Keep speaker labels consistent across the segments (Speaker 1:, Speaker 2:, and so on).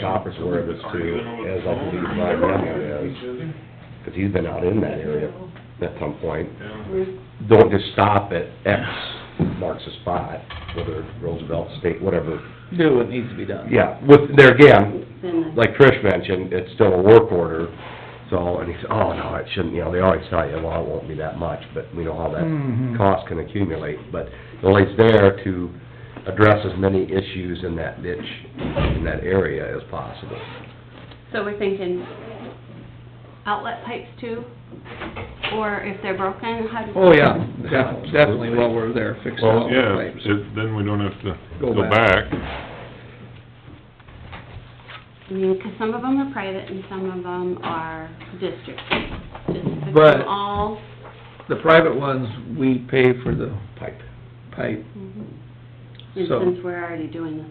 Speaker 1: Copper's aware of this too, as I believe Ryan Remley is, because he's been out in that area at some point. Don't just stop at X marks a spot, whether it's Roosevelt State, whatever.
Speaker 2: do what needs to be done.
Speaker 1: Yeah, with, there again,
Speaker 3: Then the-
Speaker 1: like Trish mentioned, it's still a work order, so, and he said, oh, no, it shouldn't, you know, they always tell you, well, it won't be that much, but we know how that
Speaker 2: Mhm.
Speaker 1: cost can accumulate, but well, it's there to address as many issues in that ditch, in that area as possible.
Speaker 3: So we're thinking outlet pipes too, or if they're broken, how do?
Speaker 2: Oh, yeah, def- definitely while we're there, fix
Speaker 4: Well,
Speaker 2: all
Speaker 4: yeah,
Speaker 2: the pipes.
Speaker 4: it- then we don't have to
Speaker 2: Go
Speaker 4: go
Speaker 2: back.
Speaker 4: back.
Speaker 3: I mean, 'cause some of them are private and some of them are district. Just fix
Speaker 2: But-
Speaker 3: them all.
Speaker 2: The private ones, we pay for the
Speaker 1: Pipe.
Speaker 2: pipe,
Speaker 3: Mhm. And
Speaker 2: So-
Speaker 3: since we're already doing this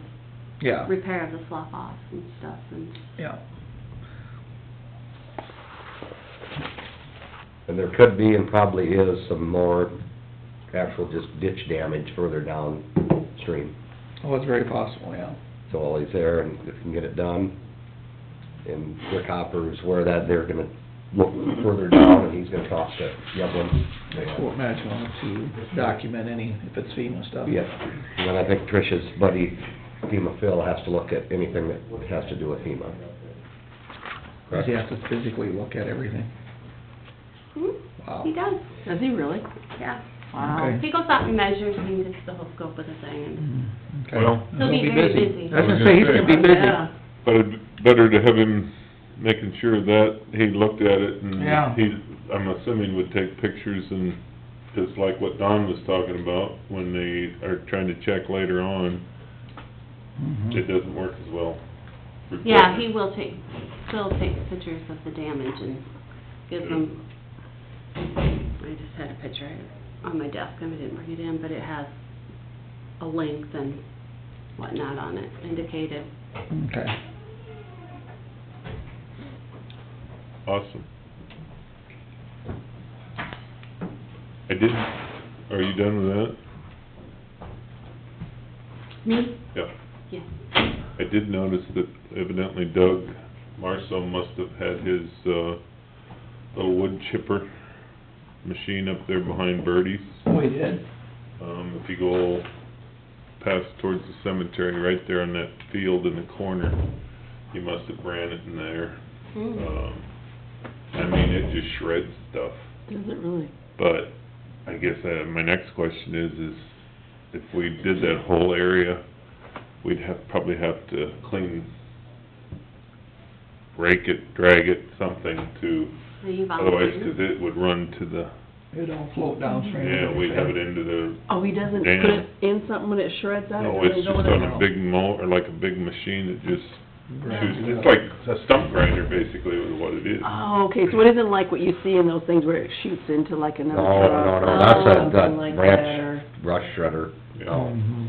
Speaker 2: yeah,
Speaker 3: repair of the slough off and stuff and.
Speaker 2: yeah.
Speaker 1: And there could be and probably is some more actual just ditch damage further downstream.
Speaker 2: Oh, it's very possible, yeah.
Speaker 1: So while he's there and if he can get it done, and Rick Hopper is aware of that they're gonna look further down and he's gonna talk to Yevlin.
Speaker 2: We'll match one to document any, if it's FEMA stuff.
Speaker 1: Yes, and then I think Trish's buddy FEMA Phil has to look at anything that has to do with FEMA.
Speaker 2: Cause you have to physically look at everything. Wow.
Speaker 3: He does,
Speaker 5: Hmm? Does he really?
Speaker 3: yeah.
Speaker 2: Okay.
Speaker 3: He goes out and measures and gets the whole scope of the thing and
Speaker 2: Mm-hmm. Okay.
Speaker 4: Well-
Speaker 3: He'll be very busy.
Speaker 2: I was gonna say, he's gonna be busy.
Speaker 5: Yeah.
Speaker 4: But it'd be better to have him making sure that he looked at it and
Speaker 2: Yeah.
Speaker 4: he, I'm assuming would take pictures and, just like what Don was talking about, when they are trying to check later on,
Speaker 1: Mm-hmm.
Speaker 4: it
Speaker 2: Mhm.
Speaker 4: doesn't work as well.
Speaker 3: Yeah, he will take, Phil takes pictures of the damage and gives them, I just had a picture on my desk, and I didn't bring it in, but it has a length and whatnot on it indicated.
Speaker 2: Mm-hmm. Okay.
Speaker 4: Awesome. I didn't, are you done with that?
Speaker 3: Me?
Speaker 4: Yeah.
Speaker 3: Yeah.
Speaker 4: I did notice that evidently Doug Marso must have had his, uh, little wood chipper machine up there behind Birdie's.
Speaker 2: We Oh, did.
Speaker 4: Um, if you go past towards the cemetery, right there on that field in the corner, he must have ran it in there.
Speaker 3: Hmm.
Speaker 4: Um, I mean, it just shreds stuff.
Speaker 5: Does it really?
Speaker 4: But I guess, uh, my next question is, is if we did that whole area, we'd have, probably have to clean, rake it, drag it, something to,
Speaker 3: So you
Speaker 4: otherwise,
Speaker 3: volunteer?
Speaker 4: 'cause it would run to the,
Speaker 2: It all float downstream.
Speaker 4: yeah, we'd have it into the,
Speaker 5: Oh, he doesn't put
Speaker 4: Damn.
Speaker 5: it in something when it shreds out?
Speaker 4: no,
Speaker 5: Does
Speaker 4: it's
Speaker 5: he
Speaker 4: just
Speaker 5: go in and
Speaker 4: on a
Speaker 5: out?
Speaker 4: big mo, or like a big machine that just shoots,
Speaker 2: Right.
Speaker 4: it's like a stump grinder basically is what it is.
Speaker 5: Oh, okay, so it isn't like what you see in those things where it shoots into like another
Speaker 1: No,
Speaker 5: truck?
Speaker 1: no, no,
Speaker 5: or
Speaker 1: that's a,
Speaker 5: Oh, something like
Speaker 1: that
Speaker 5: that, or-
Speaker 1: branch, brush shredder.
Speaker 4: Yeah.
Speaker 2: Mhm.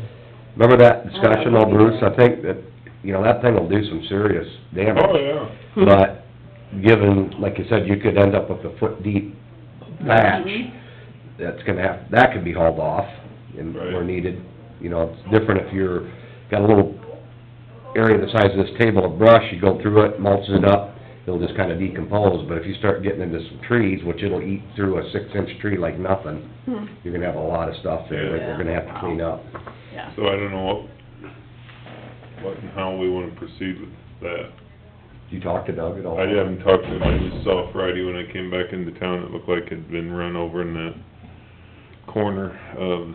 Speaker 1: Remember that discussion, old Bruce? I think that, you know, that thing will do some serious damage.
Speaker 4: Oh, yeah.
Speaker 1: But given, like you said, you could end up with a foot deep patch, that's gonna have, that could be hauled off and where
Speaker 4: Right.
Speaker 1: needed. You know, it's different if you're, got a little area the size of this table of brush, you go through it, mulch it up, it'll just kinda decompose. But if you start getting into some trees, which it'll eat through a six-inch tree like nothing,
Speaker 5: Hmm,
Speaker 1: you're gonna have a lot of stuff there that we're gonna have to clean up.
Speaker 5: Yeah.
Speaker 4: So I don't know what, what and how we wanna proceed with that.
Speaker 1: Did you talk to Doug at all?
Speaker 4: I haven't talked to him, I just saw Friday when I came back into town, it looked like it'd been run over in that corner of,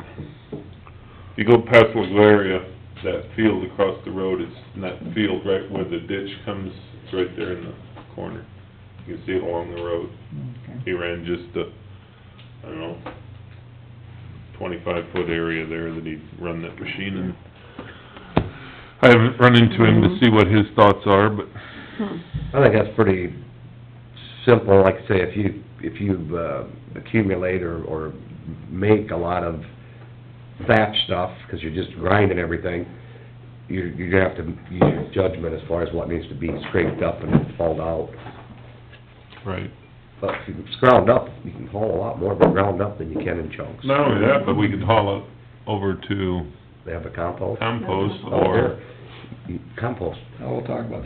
Speaker 4: if you go past LaGlaria, that field across the road, it's in that field right where the ditch comes, it's right there in the corner. You can see it along the road.
Speaker 2: Okay.
Speaker 4: He ran just a, I don't know, twenty-five foot area there that he'd run that machine in. I haven't run into him to see what his thoughts are, but
Speaker 5: Hmm.
Speaker 1: I think that's pretty simple, like I say, if you, if you uh, accumulate or, or make a lot of thatch stuff, because you're just grinding everything, you, you're gonna have to use your judgment as far as what needs to be scraped up and hauled out.
Speaker 4: Right.
Speaker 1: But if you ground up, you can haul a lot more ground up than you can in chunks.
Speaker 4: Not only that, but we could haul it over to
Speaker 1: They have a compost.
Speaker 4: compost
Speaker 1: Oh,
Speaker 4: or
Speaker 1: yeah. You- Compost.
Speaker 2: Now, we'll talk about that.